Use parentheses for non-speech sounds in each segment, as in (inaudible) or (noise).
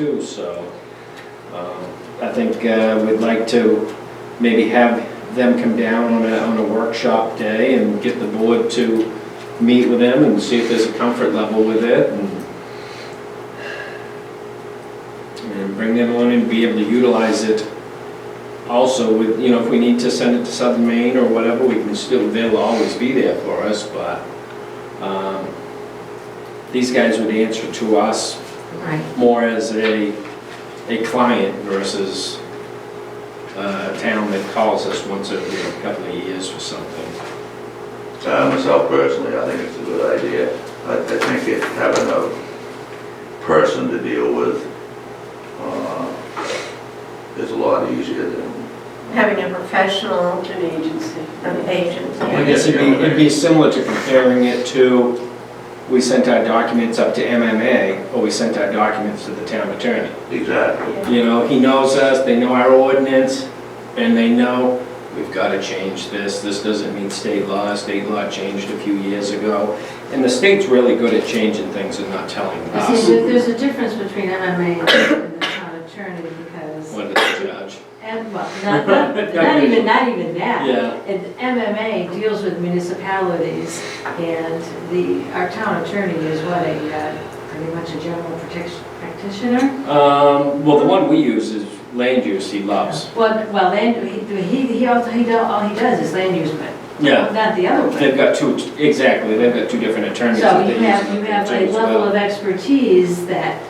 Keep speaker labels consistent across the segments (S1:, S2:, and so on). S1: too, so um, I think uh, we'd like to maybe have them come down on a, on a workshop day and get the board to meet with them and see if there's a comfort level with it and and bring them on and be able to utilize it also with, you know, if we need to send it to Southern Maine or whatever, we can still, they'll always be there for us, but um, these guys would answer to us
S2: Right,
S1: more as a, a client versus uh, a town that calls us once every couple of years for something.
S3: Uh, Myself personally, I think it's a good idea. I I think it having a person to deal with uh, is a lot easier than,
S2: having a professional
S4: An agency.
S2: um,
S1: I
S2: agent.
S1: guess it'd be, it'd be similar to comparing it to, we sent our documents up to MMA, or we sent our documents to the town attorney.
S3: exactly.
S4: Yeah.
S1: You know, he knows us, they know our ordinance, and they know, we've got to change this, this doesn't meet state law, state law changed a few years ago. And the state's really good at changing things and not telling
S2: You
S1: us
S2: See, there- there's a difference between MMA and the town attorney because,
S1: when to judge.
S2: and, well, not,
S1: (laughs)
S2: not, not even, not even that.
S1: Yeah.
S2: And MMA deals with municipalities and the, our town attorney is what, a, uh, pretty much a general protection practitioner?
S1: Um, well, the one we use is land use, he loves.
S2: Well, well, then, he, he, he also, he, do- all he does is land use, but
S1: Yeah,
S2: not the other way.
S1: they've got two, exactly, they've got two different attorneys
S2: So
S1: that they
S2: you
S1: use.
S2: have, you have a
S1: as well.
S2: level of expertise that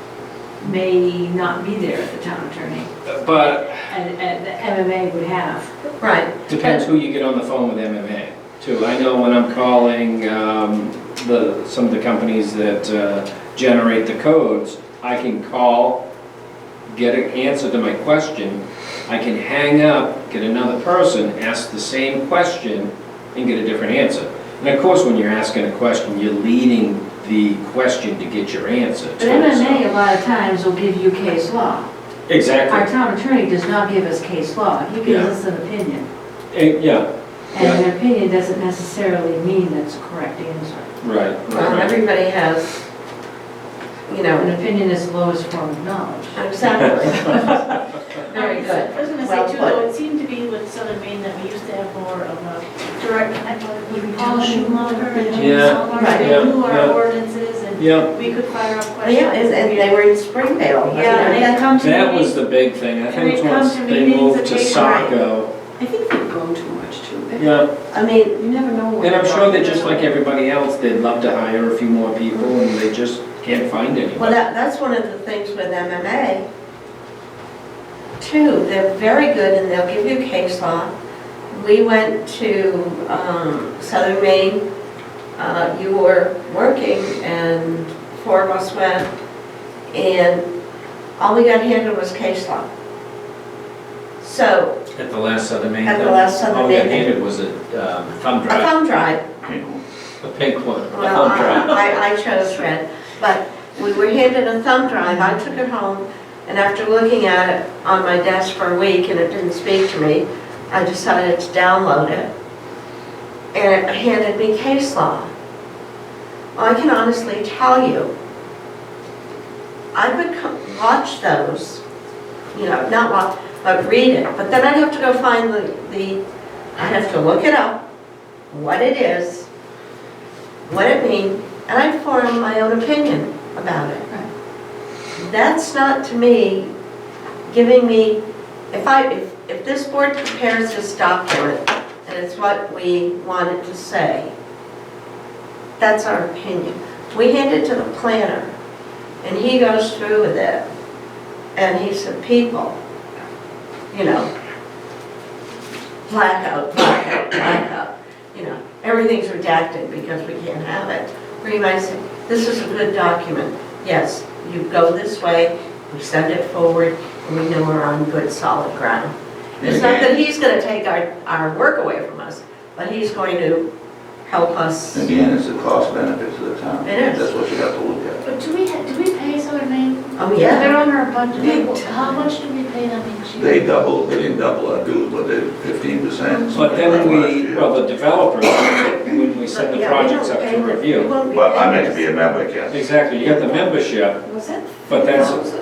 S2: may not be there at the town attorney,
S1: But
S2: and, and the MMA would have.
S4: Right.
S1: depends who you get on the phone with MMA too. I know when I'm calling, um, the, some of the companies that uh, generate the codes, I can call, get an answer to my question, I can hang up, get another person, ask the same question, and get a different answer. And of course, when you're asking a question, you're leading the question to get your answer.
S2: But
S1: too,
S2: MMA a lot of times will give you case law.
S1: so-
S2: Our
S1: Exactly,
S2: town attorney does not give us case law, he gives
S1: Yeah.
S2: us an opinion.
S1: Eh, yeah,
S2: And an opinion doesn't necessarily mean that's a correct answer.
S1: right,
S4: Well,
S1: right.
S4: everybody has, you
S2: An
S4: know,
S2: opinion is the lowest form of knowledge.
S4: exactly. Very good.
S5: I was gonna
S4: Well
S5: say too,
S4: put.
S5: though, it seemed to be with Southern Maine that we used to have more of a direct, connect with Paul Schumacher and James
S1: Yeah,
S5: Solomon,
S4: right,
S5: they knew
S1: yeah, yeah.
S5: our ordinances and
S1: Yeah,
S5: we could fire up questions.
S4: Yeah, and and they were in Springdale.
S5: Yeah, and they'd come to
S1: that was
S5: meetings,
S1: the big thing, I
S5: And
S1: think
S5: they'd come
S1: once
S5: to
S1: they
S5: meetings
S1: moved
S5: and
S1: to
S5: they'd write.
S1: Saco,
S4: I think they go too much too.
S1: yeah,
S4: I mean, you never know. what
S1: and I'm
S4: they're
S1: sure
S4: going
S1: that just
S4: to
S1: like
S4: do.
S1: everybody else, they'd love to hire a few more people, and they just can't find
S4: Well,
S1: anyone.
S4: that, that's one of the things with MMA. Too, they're very good and they'll give you case law. We went to um, Southern Maine, uh, you were working and four of us went. And all we got handed was case law. So,
S1: At the last Southern Maine.
S4: At the last Southern
S1: All they
S4: Maine.
S1: needed was a um, thumb
S4: a
S1: drive,
S4: thumb drive,
S1: a pink one, a
S4: well, uh,
S1: thumb drive.
S4: I, I chose red, but we were handed a thumb drive, I took it home, and after looking at it on my desk for a week and it didn't speak to me, I decided to download it. And it handed me case law. Well, I can honestly tell you, I would co- watch those, you know, not watch, but read it, but then I'd have to go find the, the, I'd have to look it up, what it is, what it means, and I'd form my own opinion about it. That's not to me giving me, if I, if, if this board prepares this document and it's what we want it to say, that's our opinion. We hand it to the planner and he goes through with it and he said, people, you know, blackout, blackout, blackout, you know, everything's redacted because we can't have it. Where you might say, this is a good document, yes, you go this way, we send it forward, and we know we're on good solid ground. It's not that he's gonna take our, our work away from us, but he's going to help us.
S3: Again, it's the cost benefits of the town.
S4: It is.
S3: That's what you have to look at.
S5: But do we, ha- do we pay Southern Maine?
S4: Oh, yeah,
S5: They're on our
S4: Big
S5: budget,
S4: time.
S5: how much do we pay them each year?
S3: They doubled, they didn't double our dues, but they fifteen percent.
S1: But then we, well, the developers, when we send the
S4: Yeah, we
S1: projects
S4: don't
S1: up
S4: pay-
S1: to
S4: we
S1: review.
S4: won't be
S3: But I
S4: paying
S3: meant to be a member, Ken.
S1: Exactly, you got the membership,
S4: us. Was that
S1: but that's,
S4: $50?